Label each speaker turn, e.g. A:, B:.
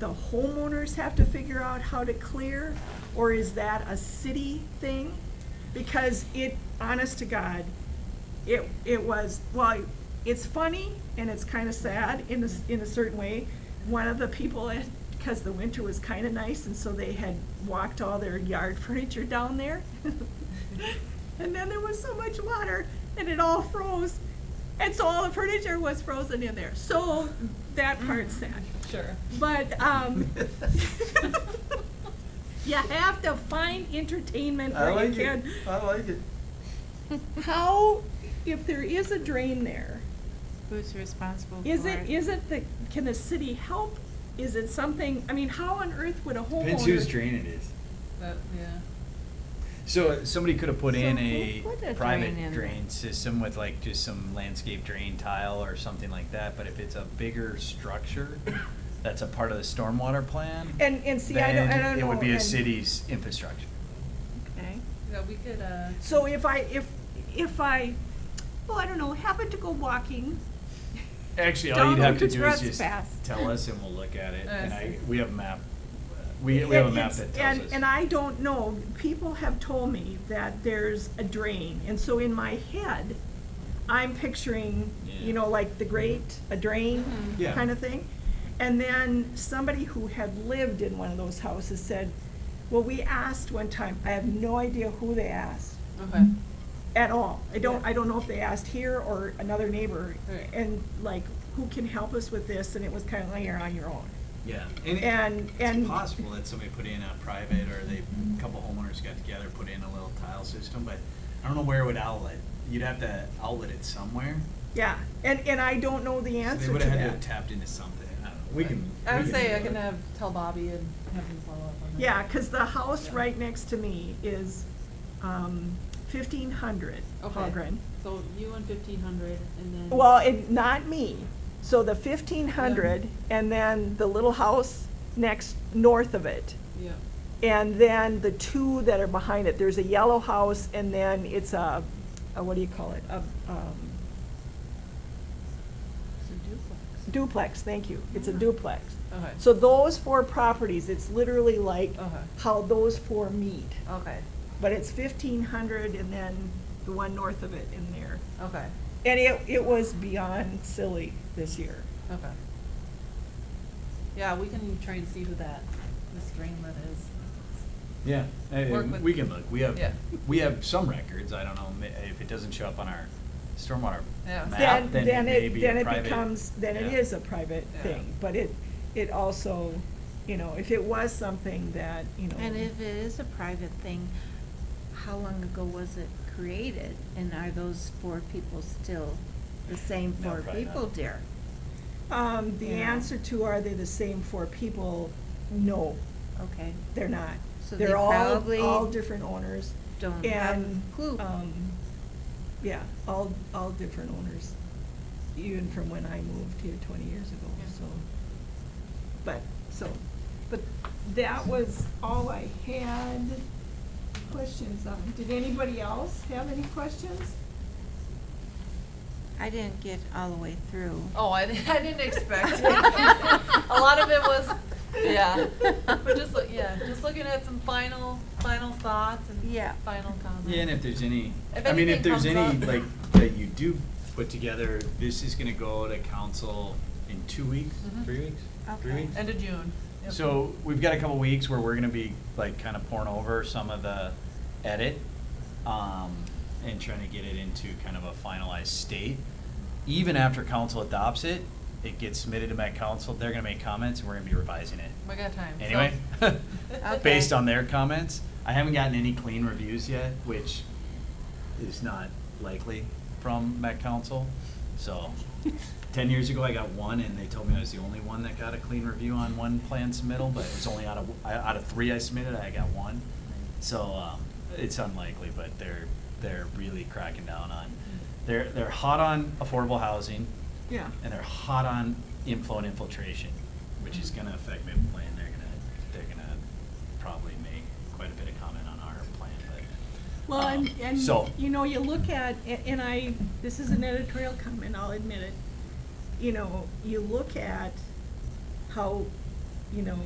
A: the homeowners have to figure out how to clear, or is that a city thing? Because it, honest to God, it, it was, well, it's funny and it's kind of sad in a, s- in a certain way. One of the people, because the winter was kind of nice, and so they had walked all their yard furniture down there. And then there was so much water and it all froze. And so all the furniture was frozen in there. So that part's sad.
B: Sure.
A: But, um, you have to find entertainment
C: I
A: where you
C: like it,
A: can.
C: I like it.
A: How, if there is a drain there,
B: Who's responsible for it?
A: is it, is it the, can the city help? Is it something, I mean, how on earth would a homeowner?
D: Depends whose drain it is.
B: That- yeah.
D: So somebody could have put in
B: So
D: a
B: who put a drain in
D: private
B: there?
D: drain system with like just some landscape drain tile or something like that, but if it's a bigger structure that's a part of the stormwater plan,
A: And, and Eh, see, I don't, I don't
D: then
A: know.
D: it would be a
A: and-
D: city's infrastructure.
A: Okay.
B: Yeah, we could, uh.
A: So if I, if, if I, well, I don't know, happen to go walking,
D: Actually, all you'd
A: Donald
D: have to
A: could
D: do is just
A: trespass.
D: tell us and we'll look at it,
B: I
D: and I,
B: see.
D: we have a map, we, we have a
A: And
D: map
A: Uh, it's-
D: that tells us.
A: And, and I don't know, people have told me that there's a drain, and so in my head, I'm picturing, you
D: Yeah.
A: know, like the great, a drain,
B: Mhm.
D: Yeah.
A: kind of thing. And then somebody who had lived in one of those houses said, well, we asked one time, I have no idea who they asked
B: Okay.
A: at all. I don't,
B: Yeah.
A: I don't know if they asked here or another neighbor,
B: Right.
A: and like, who can help us with this, and it was kind of like, you're on your own.
D: Yeah,
A: And-
D: and
A: and-
D: it's possible that somebody put in a private, or they, a couple homeowners got together, put in a little tile system, but I don't know where it would outlet. You'd have to outlet it somewhere.
A: Yeah, and, and I don't know the
D: So
A: answer
D: They
A: to
D: would have had to have
A: that.
D: tapped into something, I don't know. We can.
B: I would
D: we
B: say I
D: do
B: can
D: it.
B: have, tell Bobby and have him follow up on that.
A: Yeah, cause the house
B: Yeah.
A: right next to me is, um, fifteen hundred
B: Okay. Mm-hmm.
A: Holgren.
B: So you and fifteen hundred and then.
A: Well, it, not me, so the fifteen hundred, and then the little house next, north of it.
B: Yeah,
A: And then the two that are behind it, there's a yellow house, and then it's a, a, what do you call it, a, um,
B: so duplex.
A: Duplex, thank you. It's a
B: Yeah.
A: duplex.
B: Mm-hmm. Okay. Uh-huh.
A: So those four properties, it's literally like
B: Okay.
A: how those four meet.
B: Okay,
A: But it's fifteen hundred and then the one north of it in there.
B: okay,
A: And it, it was beyond silly this year.
B: okay. Yeah, we can try and see who that, this drain that is.
D: Yeah, hey,
B: Work with-
D: we can look, we have,
B: Yeah.
D: we have some records, I don't know, ma- if it doesn't show up on our stormwater
B: Yeah.
D: map,
A: Then,
D: then
A: then
D: it may
A: it,
D: be a
A: then it
D: private-
A: becomes, then it
D: yeah.
A: is a private
B: Yeah.
A: thing. But it, it also, you know, if it was something that, you know.
E: And if it is a private thing, how long ago was it created? And are those four people still the same
D: No,
E: four
D: probably not.
E: people, dear?
A: Um, the
E: Yeah.
A: answer to are they the same four people? No.
E: Okay,
A: They're not.
E: So they
A: They're all,
E: probably
A: all different owners.
E: don't have
A: and,
E: a clue.
A: um, Yeah, all, all different owners, even from when I moved here twenty years ago,
B: Yeah.
A: so. But, so, but that was all I had questions on. Did anybody else have any questions?
E: I didn't get all the way through.
B: Oh, I, I didn't expect it. A lot of it was, yeah, but just, look- yeah, just looking at some final, final thoughts and
E: Yeah.
B: final comments.
D: Yeah, and if there's any,
B: If
D: I mean, if
B: anything
D: there's
B: comes
D: any,
B: up.
D: like, that you do put together, this is gonna go to council in two weeks,
B: Mhm.
D: three weeks? Three
E: Okay.
D: weeks?
B: End of June. Yep.
D: So we've got a couple weeks where we're gonna be like kind of pouring over some of the edit, um, and trying to get it into kind of a finalized state. Even after council adopts it, it gets submitted to Met Council, they're gonna make comments, and we're gonna be revising it.
B: We got time. so-
D: Anyway,
E: Okay.
D: based on their comments, I haven't gotten any clean reviews yet, which is not likely from Met Council. So, ten years ago, I got one, and they told me I was the only one that got a clean review on one plan submittal, but it was only out of, I- out of three I submitted, I got one. So, um, it's unlikely, but they're, they're really cracking down on, they're, they're hot on affordable housing
A: Yeah.
D: and they're hot on inflow and infiltration, which is gonna affect my plan, they're gonna, they're gonna probably make quite a bit of comment on our plan, but.
A: Well, and,
D: um,
A: and,
D: So,
A: you know, you look at, a- and I, this is an editorial comment, I'll admit it. You know, you look at how you know,